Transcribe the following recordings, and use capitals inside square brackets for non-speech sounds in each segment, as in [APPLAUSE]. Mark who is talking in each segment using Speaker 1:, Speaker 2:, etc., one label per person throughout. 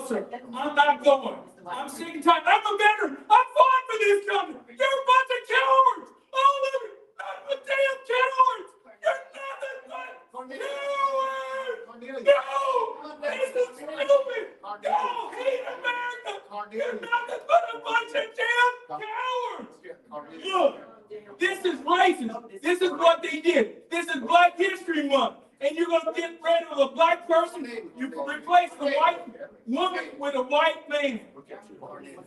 Speaker 1: closer. I'm not going. I'm sick and tired. I'm a veteran. I fought for this company. You're a bunch of cowards. All of you. I'm a damn coward. You're nothing but cowards.
Speaker 2: Cornelius.
Speaker 1: No, this is stupid. Y'all hate America. You're nothing but a bunch of damn cowards. Look, this is racist. This is what they did. This is Black History Month. And you're gonna get rid of a black person, you replace the white woman with a white man.
Speaker 2: Cornelius.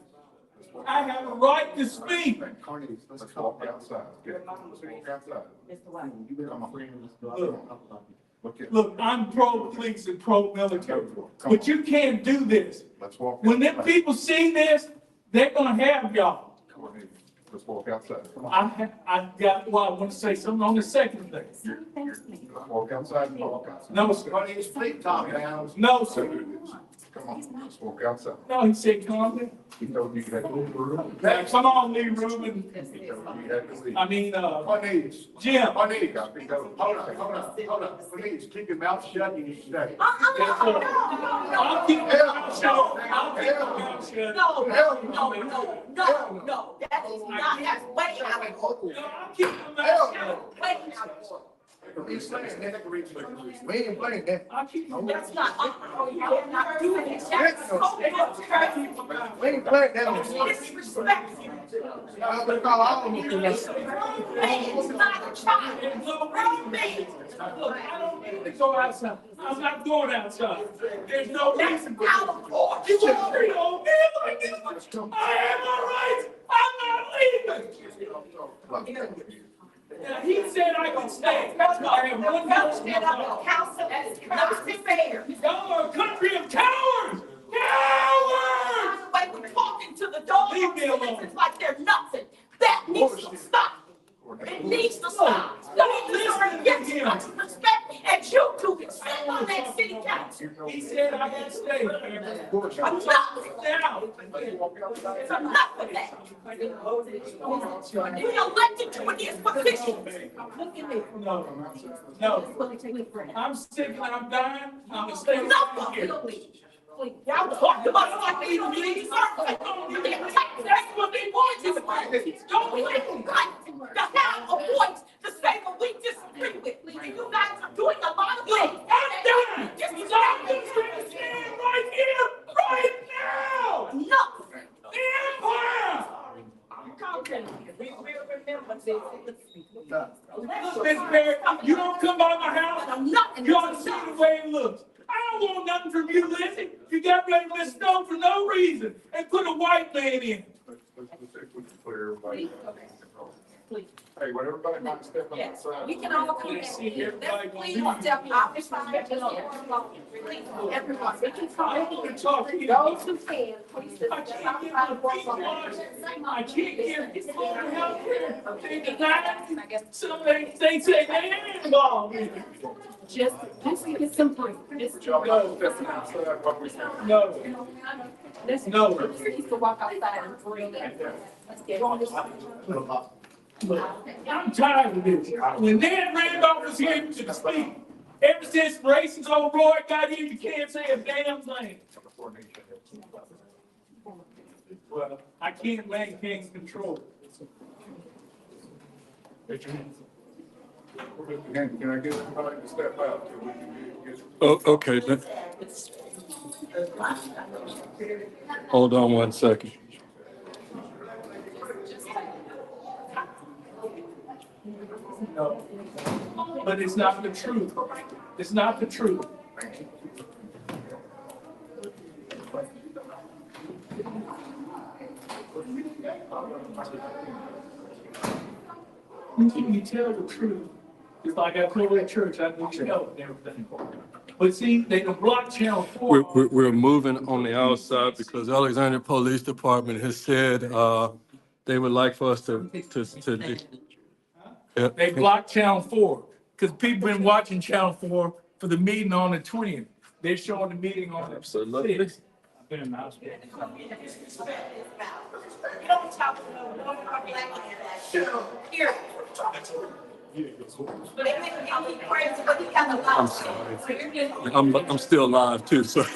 Speaker 1: I have a right to speak.
Speaker 2: Cornelius, let's walk outside. Let's walk outside.
Speaker 3: Mr. White.
Speaker 2: You been on my- Look at-
Speaker 1: Look, I'm pro-police and pro-military, but you can't do this.
Speaker 2: Let's walk.
Speaker 1: When them
Speaker 2: outside.
Speaker 1: people see this, they're gonna have y'all.
Speaker 2: Cornelius, Let's walk outside. Come on.
Speaker 1: I, ha- I got, well, I wanna say something on the second thing.
Speaker 3: Sir, thanks, ma'am.
Speaker 2: Let's Walk outside and walk outside.
Speaker 1: No, sir.
Speaker 2: Cornelius, please calm down.
Speaker 1: No, sir.
Speaker 2: Come on, let's walk outside.
Speaker 1: No, he said, calm down.
Speaker 2: He told you you had to move around.
Speaker 1: Now, Come on, Lee Rubin.
Speaker 2: He told you you had to leave.
Speaker 1: I mean, uh,
Speaker 2: Cornelius,
Speaker 1: Jim.
Speaker 2: Cornelius, I think that was- hold on, hold on, hold on. Please keep your mouth shut, you need to
Speaker 3: Uh,
Speaker 2: stay.
Speaker 1: Yes, sir. I'll keep my mouth shut. I'll keep my mouth shut. No,
Speaker 3: No, no, no, no, no, that is not, that's way out of order.
Speaker 1: I'll keep my mouth shut.
Speaker 3: Way out of order.
Speaker 2: Please, please, Nick, please, please. We ain't playing that.
Speaker 1: I'll keep my mouth
Speaker 3: That's not, oh, you cannot do that. That's so
Speaker 1: shut.
Speaker 3: much
Speaker 2: We ain't playing that.
Speaker 3: disrespectful.
Speaker 2: I'm gonna call all of you.
Speaker 3: Man, it's not a child.
Speaker 1: There's no reason. Look, I don't need to go outside. I'm not going outside. There's no
Speaker 3: That's
Speaker 1: reason.
Speaker 3: out of order.
Speaker 1: You won't treat old man like this. I have my rights. I'm not leaving. Now, he said I could stay. That's why I have one house.
Speaker 3: Council, that is not fair.
Speaker 1: Y'all are a country of cowards! Cowards!
Speaker 3: By the way, we're talking to the dogs
Speaker 1: Leave me alone.
Speaker 3: It's like they're nothing. That needs to stop. It needs to stop.
Speaker 1: Don't
Speaker 3: Don't
Speaker 1: listen to
Speaker 3: deserve yes,
Speaker 1: him.
Speaker 3: much respect, and you two can sit on that city council.
Speaker 1: He said I had to stay.
Speaker 3: I'm not with that.
Speaker 1: Now,
Speaker 3: I'm not with that. You elected to these positions. Look at me.
Speaker 1: no, no, I'm sick and I'm dying. I'm gonna stay
Speaker 3: Enough
Speaker 1: right
Speaker 3: of
Speaker 1: here.
Speaker 3: you, please. Y'all talk about us like we don't need service. You can take that's what they want you to do. Don't let them right to have a voice to say what we disagree with. And you guys are doing a lot of things.
Speaker 1: I'm dying!
Speaker 3: Just
Speaker 1: Y'all can stand right here, right now!
Speaker 3: Enough.
Speaker 1: The empire!
Speaker 3: We will remember this.
Speaker 1: Miss Barrett, you don't come by my house.
Speaker 3: Enough.
Speaker 1: You ought to see the way it looks. I don't want nothing from you, Lizzie. You got ready to let snow for no reason and put a white man in.
Speaker 3: Please.
Speaker 2: Hey, when everybody might step on the
Speaker 3: Yes,
Speaker 2: side.
Speaker 3: we can all come in. Let's please step out. It's fine. Let's go. Please, everyone, we can
Speaker 1: I don't
Speaker 3: talk.
Speaker 1: want to talk to you.
Speaker 3: Those who can, please sit
Speaker 1: I
Speaker 3: down.
Speaker 1: can't get my feet washed. I can't get this phone out here. They deny it. Some they, they say they ain't involved.
Speaker 3: Just, just get some point. Just
Speaker 2: Would y'all mind stepping outside while we-
Speaker 1: No,
Speaker 3: Let's
Speaker 1: No.
Speaker 3: Please to walk outside and breathe. Let's get on this.
Speaker 1: look, I'm tired of this. When Ned Randolph was here to speak, ever since racist old Roy got here, you can't say a damn thing. Well, I can't let things control.
Speaker 2: Can can I get everybody to step out? till we can get-
Speaker 4: Oh, okay, let- hold on one second.
Speaker 1: No. But it's not the truth. It's not the truth. When you tell the truth, it's like I told that church, I need your help and everything. But see, they can block channel
Speaker 4: We're,
Speaker 1: four.
Speaker 4: we're, we're moving on the outside because Alexandria Police Department has said, uh, they would like for us to, to, to. Yeah.
Speaker 1: They blocked Channel Four, because people been watching Channel Four for the meeting on the twentieth. They're showing the meeting on the
Speaker 4: Absolutely.
Speaker 1: sixth. I've been in the hospital.
Speaker 3: You don't talk to no one black man. Period. They make me crazy, but he got a lot.
Speaker 4: [LAUGHS] I'm sorry. I'm, I'm still live too, so.